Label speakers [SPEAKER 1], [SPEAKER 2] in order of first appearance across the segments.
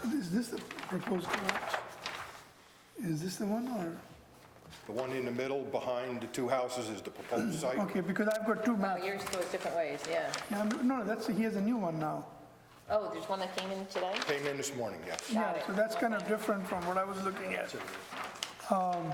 [SPEAKER 1] So is this the proposed garage? Is this the one or?
[SPEAKER 2] The one in the middle behind the two houses is the proposed site.
[SPEAKER 1] Okay, because I've got two
[SPEAKER 3] Oh,
[SPEAKER 1] maps.
[SPEAKER 3] yours goes different ways, yeah.
[SPEAKER 1] Yeah, I'm- No, that's, he has a new one now.
[SPEAKER 3] Oh, there's one that came in today?
[SPEAKER 2] Came in this morning, yes.
[SPEAKER 3] Got
[SPEAKER 1] Yeah,
[SPEAKER 3] it.
[SPEAKER 1] so that's kind of different from what I was looking at. Um,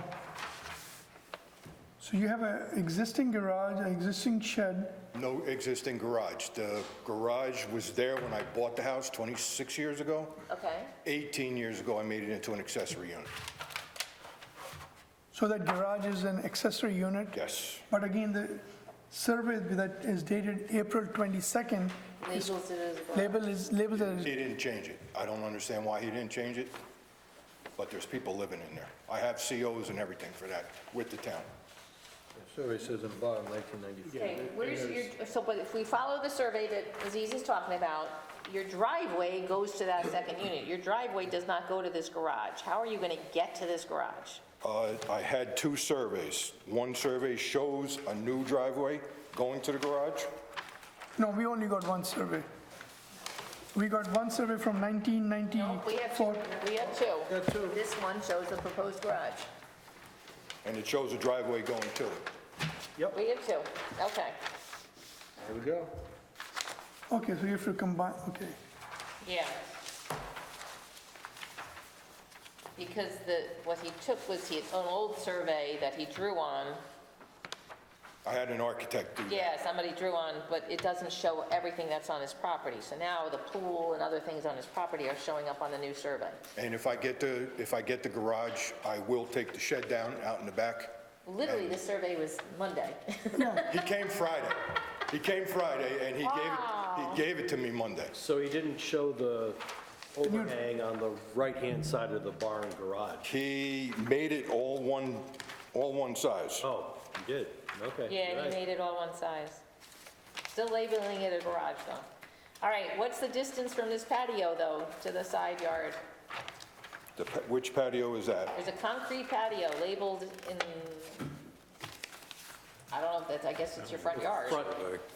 [SPEAKER 1] So you have an existing garage, an existing shed,
[SPEAKER 2] No existing garage. The garage was there when I bought the house 26 years ago.
[SPEAKER 3] Okay.
[SPEAKER 2] 18 years ago, I made it into an accessory unit.
[SPEAKER 1] so that garage is an accessory unit?
[SPEAKER 2] Yes,
[SPEAKER 1] But again, the survey that is dated April 22nd,
[SPEAKER 3] Labels it as a garage.
[SPEAKER 1] label is, labeled as,
[SPEAKER 2] he didn't change it. I don't understand why he didn't change it, but there's people living in there. I have COs and everything for that with the town.
[SPEAKER 4] Survey says in the bottom, 1994.
[SPEAKER 3] Okay, where's your, so, but if we follow the survey that Aziz is talking about, your driveway goes to that second unit. Your driveway does not go to this garage. How are you gonna get to this garage?
[SPEAKER 2] Uh, I had two surveys. One survey shows a new driveway going to the garage.
[SPEAKER 1] no, we only got one survey. We got one survey from Hmm.
[SPEAKER 3] We have two,
[SPEAKER 1] 1994.
[SPEAKER 3] we have two. This one shows the proposed garage.
[SPEAKER 2] and it shows a driveway going to it.
[SPEAKER 3] We have two, okay.
[SPEAKER 4] There we go.
[SPEAKER 1] Okay, so you have to combine, okay.
[SPEAKER 3] Yeah. Because the, what he took was his own old survey that he drew on.
[SPEAKER 2] I had an architect do that.
[SPEAKER 3] Yeah, somebody drew on, but it doesn't show everything that's on his property. So now the pool and other things on his property are showing up on the new survey.
[SPEAKER 2] And if I get the, if I get the garage, I will take the shed down out in the back.
[SPEAKER 3] Literally, the survey was Monday.
[SPEAKER 2] He came Friday. He came Friday, and he gave it, he gave it to me Monday.
[SPEAKER 5] So he didn't show the overhang on the right-hand side of the barn garage?
[SPEAKER 2] He made it all one, all one size.
[SPEAKER 5] Oh, he did, okay.
[SPEAKER 3] Yeah,
[SPEAKER 5] you're
[SPEAKER 3] he
[SPEAKER 5] right.
[SPEAKER 3] made it all one size. Still labeling it a garage though. All right, what's the distance from this patio though, to the side yard?
[SPEAKER 2] The pa- Which patio is that?
[SPEAKER 3] There's a concrete patio labeled in, I don't know if that's, I guess it's your front yard.
[SPEAKER 5] Front,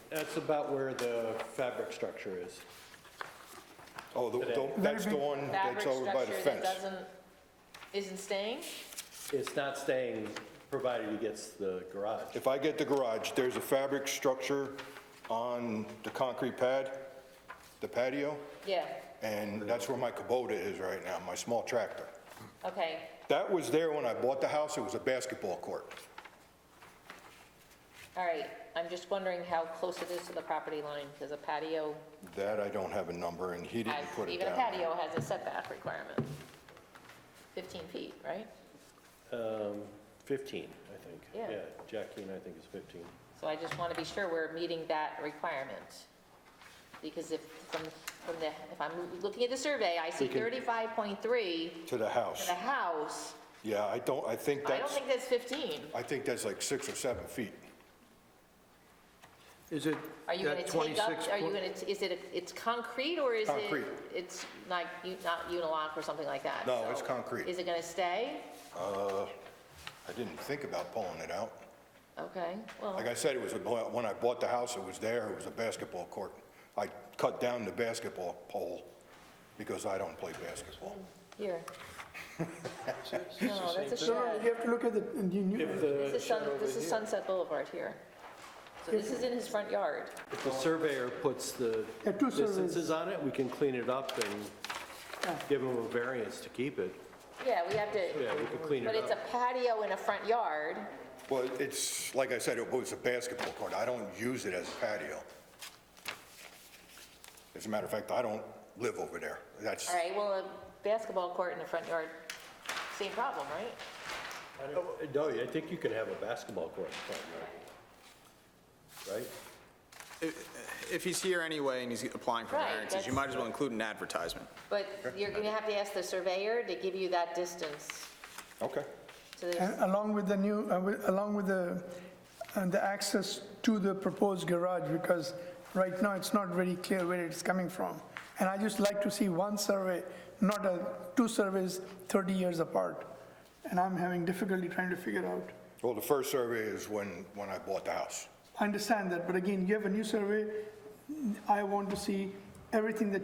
[SPEAKER 5] that's about where the fabric structure is.
[SPEAKER 2] Oh, the- the- that's the one that's
[SPEAKER 3] Fabric
[SPEAKER 2] over by the
[SPEAKER 3] structure that
[SPEAKER 2] fence.
[SPEAKER 3] doesn't, isn't staying?
[SPEAKER 5] It's not staying, provided he gets the garage.
[SPEAKER 2] If I get the garage, there's a fabric structure on the concrete pad, the patio,
[SPEAKER 3] Yeah,
[SPEAKER 2] and that's where my Kubota is right now, my small tractor.
[SPEAKER 3] okay.
[SPEAKER 2] That was there when I bought the house, it was a basketball court.
[SPEAKER 3] All right, I'm just wondering how close it is to the property line, because a patio
[SPEAKER 2] That I don't have a number, and he
[SPEAKER 3] has,
[SPEAKER 2] didn't put it
[SPEAKER 3] even a
[SPEAKER 2] down.
[SPEAKER 3] patio has a setback requirement. 15 feet, right?
[SPEAKER 5] Um, 15, I think.
[SPEAKER 3] Yeah.
[SPEAKER 5] Jackie and I think it's 15.
[SPEAKER 3] So I just want to be sure we're meeting that requirement. Because if, from, from the, if I'm looking at the survey, I see 35.3,
[SPEAKER 2] To the house.
[SPEAKER 3] the house,
[SPEAKER 2] Yeah, I don't, I think
[SPEAKER 3] I don't
[SPEAKER 2] that's,
[SPEAKER 3] think that's 15.
[SPEAKER 2] I think that's like six or seven feet.
[SPEAKER 4] Is it
[SPEAKER 3] Are you going
[SPEAKER 4] that
[SPEAKER 3] to take up,
[SPEAKER 4] 26?
[SPEAKER 3] are you going to, is it, it's concrete or is it?
[SPEAKER 2] Concrete.
[SPEAKER 3] It's like, u- not unilock or something like that?
[SPEAKER 2] No, it's
[SPEAKER 3] so
[SPEAKER 2] concrete.
[SPEAKER 3] Is it going to stay?
[SPEAKER 2] I didn't think about pulling it out.
[SPEAKER 3] Okay, well,
[SPEAKER 2] Like I said, it was, a- when I bought the house, it was there, it was a basketball court. I cut down the basketball pole because I don't play basketball.
[SPEAKER 3] here. No, that's a
[SPEAKER 1] No, no,
[SPEAKER 3] shed.
[SPEAKER 1] you have to look at the, and you
[SPEAKER 5] If
[SPEAKER 1] knew,
[SPEAKER 3] This
[SPEAKER 5] the,
[SPEAKER 3] is Sun, this is Sunset Boulevard here. So this is in his front yard.
[SPEAKER 5] if the surveyor puts the
[SPEAKER 1] Yeah, two surveys.
[SPEAKER 5] distances on it, we can clean it up and give him a variance to keep it.
[SPEAKER 3] Yeah, we have to,
[SPEAKER 5] Yeah, we could clean
[SPEAKER 3] but
[SPEAKER 5] it
[SPEAKER 3] it's a
[SPEAKER 5] up.
[SPEAKER 3] patio in a front yard.
[SPEAKER 2] Well, it's, like I said, it was a basketball court. I don't use it as a patio. As a matter of fact, I don't live over there. That's,
[SPEAKER 3] All right, well, a basketball court in the front yard, same problem, right?
[SPEAKER 5] I don't- No, I think you can have a basketball court in front yard. Right?
[SPEAKER 6] If he's here anyway and he's applying for
[SPEAKER 3] Right,
[SPEAKER 6] variances, you
[SPEAKER 3] that's-
[SPEAKER 6] might as well include an advertisement.
[SPEAKER 3] But you're going to have to ask the surveyor to give you that distance
[SPEAKER 2] okay.
[SPEAKER 3] to the
[SPEAKER 1] and along with the new, uh, with- along with the, and the access to the proposed garage, because right now it's not very clear where it's coming from. And I just like to see one survey, not a, two surveys 30 years apart. And I'm having difficulty trying to figure out.
[SPEAKER 2] Well, the first survey is when, when I bought the house.
[SPEAKER 1] I understand that, but again, you have a new survey. I want to see everything that